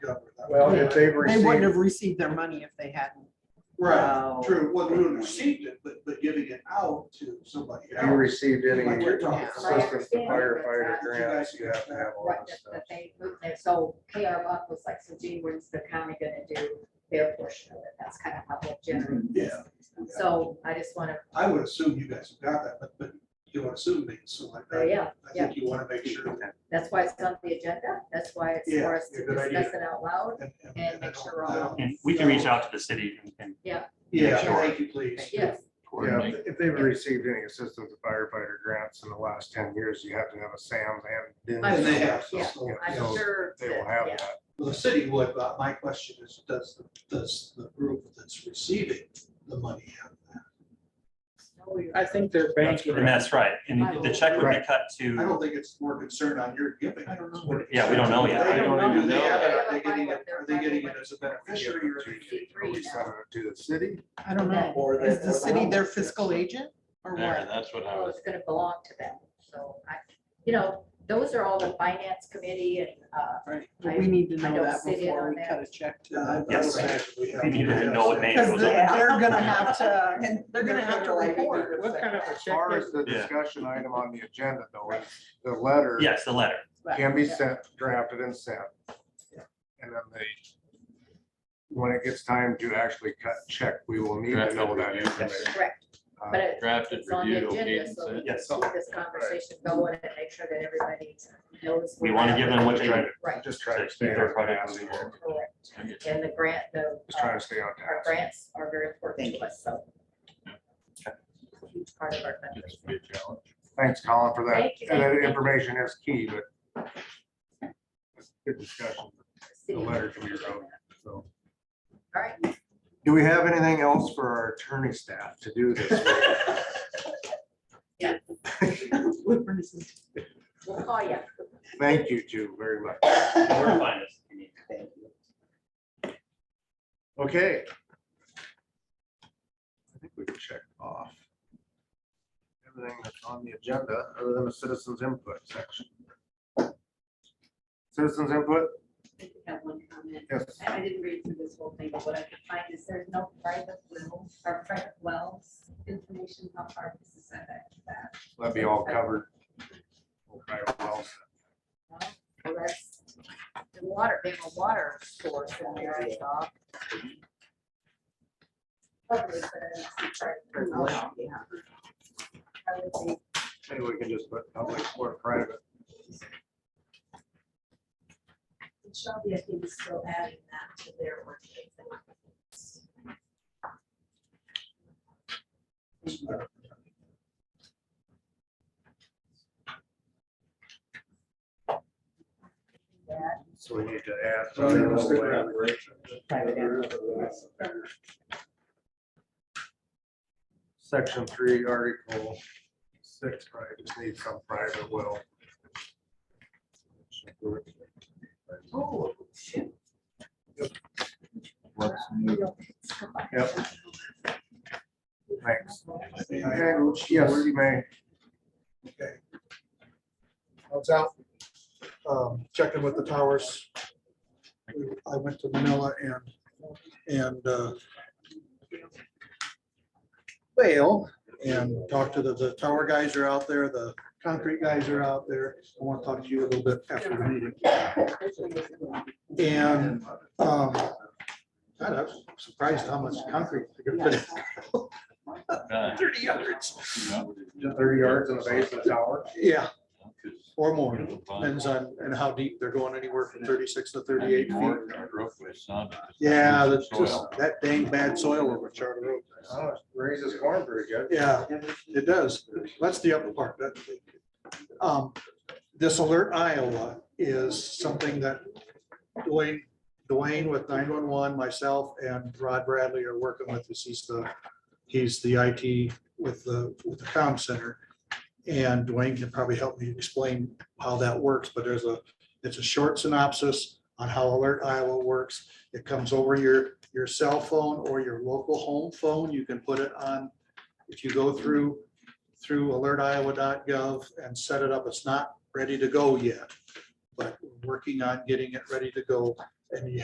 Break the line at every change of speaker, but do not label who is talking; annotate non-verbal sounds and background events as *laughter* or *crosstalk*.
Well, if they've
They wouldn't
received,
have received their money if they hadn't.
Right,
Wow.
true, well, we wouldn't have received it, but, but giving it out to somebody
if you
else.
received any
Like we're talking about.
assistance to firefighter grants, you have to have all
Right,
that
that,
stuff.
that they, moved there. so KR Buck was like, so gee, when's the county gonna do their portion of it? That's kind of how they generate. this.
Yeah,
So I just wanna,
I would assume you guys have got that, but, but you don't assume things, so like
oh,
that.
yeah,
I think you wanna make sure that,
that's why it's on the agenda, that's why it's
Yeah,
for us
yeah,
to
good idea.
discuss it out loud.
and- and-
And
and
make
I don't-
sure
I
all-
don't-
And we can reach out to the city and- and.
Yeah,
Sure.
thank you, please.
Yes,
Yeah,
coordinate.
if- if they've received any assistance to firefighter grants in the last ten years, you have to have a SAM and.
I
And they have,
Yeah,
so-
I'm
So,
sure.
They
that-
will have
yeah.
that.
Well, the city would, but my question is, does, the- does the group that's receiving the money have that?
No, we-
I think they're
That's-
banking.
And that's right. And the check would be cut
I
to,
don't think it's more concerned on your giving.
I don't know.
It's more
Yeah, we don't know yet.
concerned,
I don't
do
even
they
know.
have it? Are
They
they
don't
getting
know
it, are they getting it as a beneficiary or?
Are we sending it to the city?
I don't know.
or they-
Is the city their fiscal agent or
There,
what?
that's what I
Well,
was,
it's gonna belong to them, so I, you know, those are all the finance committee and, uh,
Right.
But we need to
I- I
know
don't
that
sit in
before
on
we
that.
cut a check to
Yeah, I- I
them.
would
Yes.
imagine we have
We need to know what
have
name
that.
it
Because
was
they're
on.
they're gonna have to, and they're gonna have to report.
What kind of a
As
check?
far as the
Yeah.
discussion item on the agenda though, is the letter
yes, the letter.
can
*laughs*
be sent, drafted and sent.
Yeah.
And then they, when it gets time to actually cut check, we will need to
Drafted
know that
review.
information.
correct,
Uh,
but it-
drafted,
it's on the
reviewed, okayed,
agenda,
and
so
sent.
we
Yeah,
can
so-
keep this conversation going and make sure that everybody knows.
We
where
want to
that-
give them what they
Right.
need.
Right,
Just try to
Just
stay
keep
on
everybody
task.
moving forward.
correct, and the grant, the,
Just
uh,
trying to stay on
our
task.
grants are very important to us, so. It's a Huge part of our country.
It's a big challenge.
Thanks, Colin, for that.
Thank you.
And that information is key, but it's good discussion, the letter can be wrote, so.
All right,
Do we have anything else for our attorney staff to do this? *laughs* week?
we'll call you.
Thank you two very much.
Where to find us if you need.
Okay. I think we've checked off everything that's on the agenda, other than the citizens input section. Citizens input,
I think I have one comment.
yes,
I I didn't read through this whole thing, but what I could find is there's no private well, or private wells information, how far this is that back to that.
that'd be all covered. Okay, well,
Well, that's the water, they have a water source in there, I saw. Probably, but I didn't see private well, yeah. I would think
Maybe we can just put public or private.
it shall be, I think, is still adding that to their work. That
So we need to add.
So you're gonna stick
something.
around.
private
Section three, article six, probably just need some private will.
Oh, shoot.
Yep. Thanks. Okay, yes,
Yes.
you may.
Okay. I was out um, checking with the towers. I went to Manila and, and uh, Vail and talked to the, the tower guys are out there, the concrete guys are out there. I want to talk to you a little bit after the meeting. And um, God, I was surprised how much concrete they're gonna put in.
Uh,
Thirty yards.
Thirty yards in the base of the tower.
Yeah, or more. Depends on, and how deep they're going, anywhere from thirty-six to thirty-eight feet. Yeah, that's just, that dang bad soil over at Charter Oak.
Oh, it Raises corn pretty good.
Yeah, it does. That's the upper part. That- um, This alert Iowa is something that Dwayne, Dwayne with nine-one-one, myself and Rod Bradley are working with. This he's the, he's the IT with the, with the comm center. And Dwayne can probably help me explain how that works, but there's a, it's a short synopsis on how Alert Iowa works. It comes over your, your cell phone or your local home phone. You can put it on if you go through, through alertiowa.gov and set it up, it's not ready to go yet. But we're working on getting it ready to go and you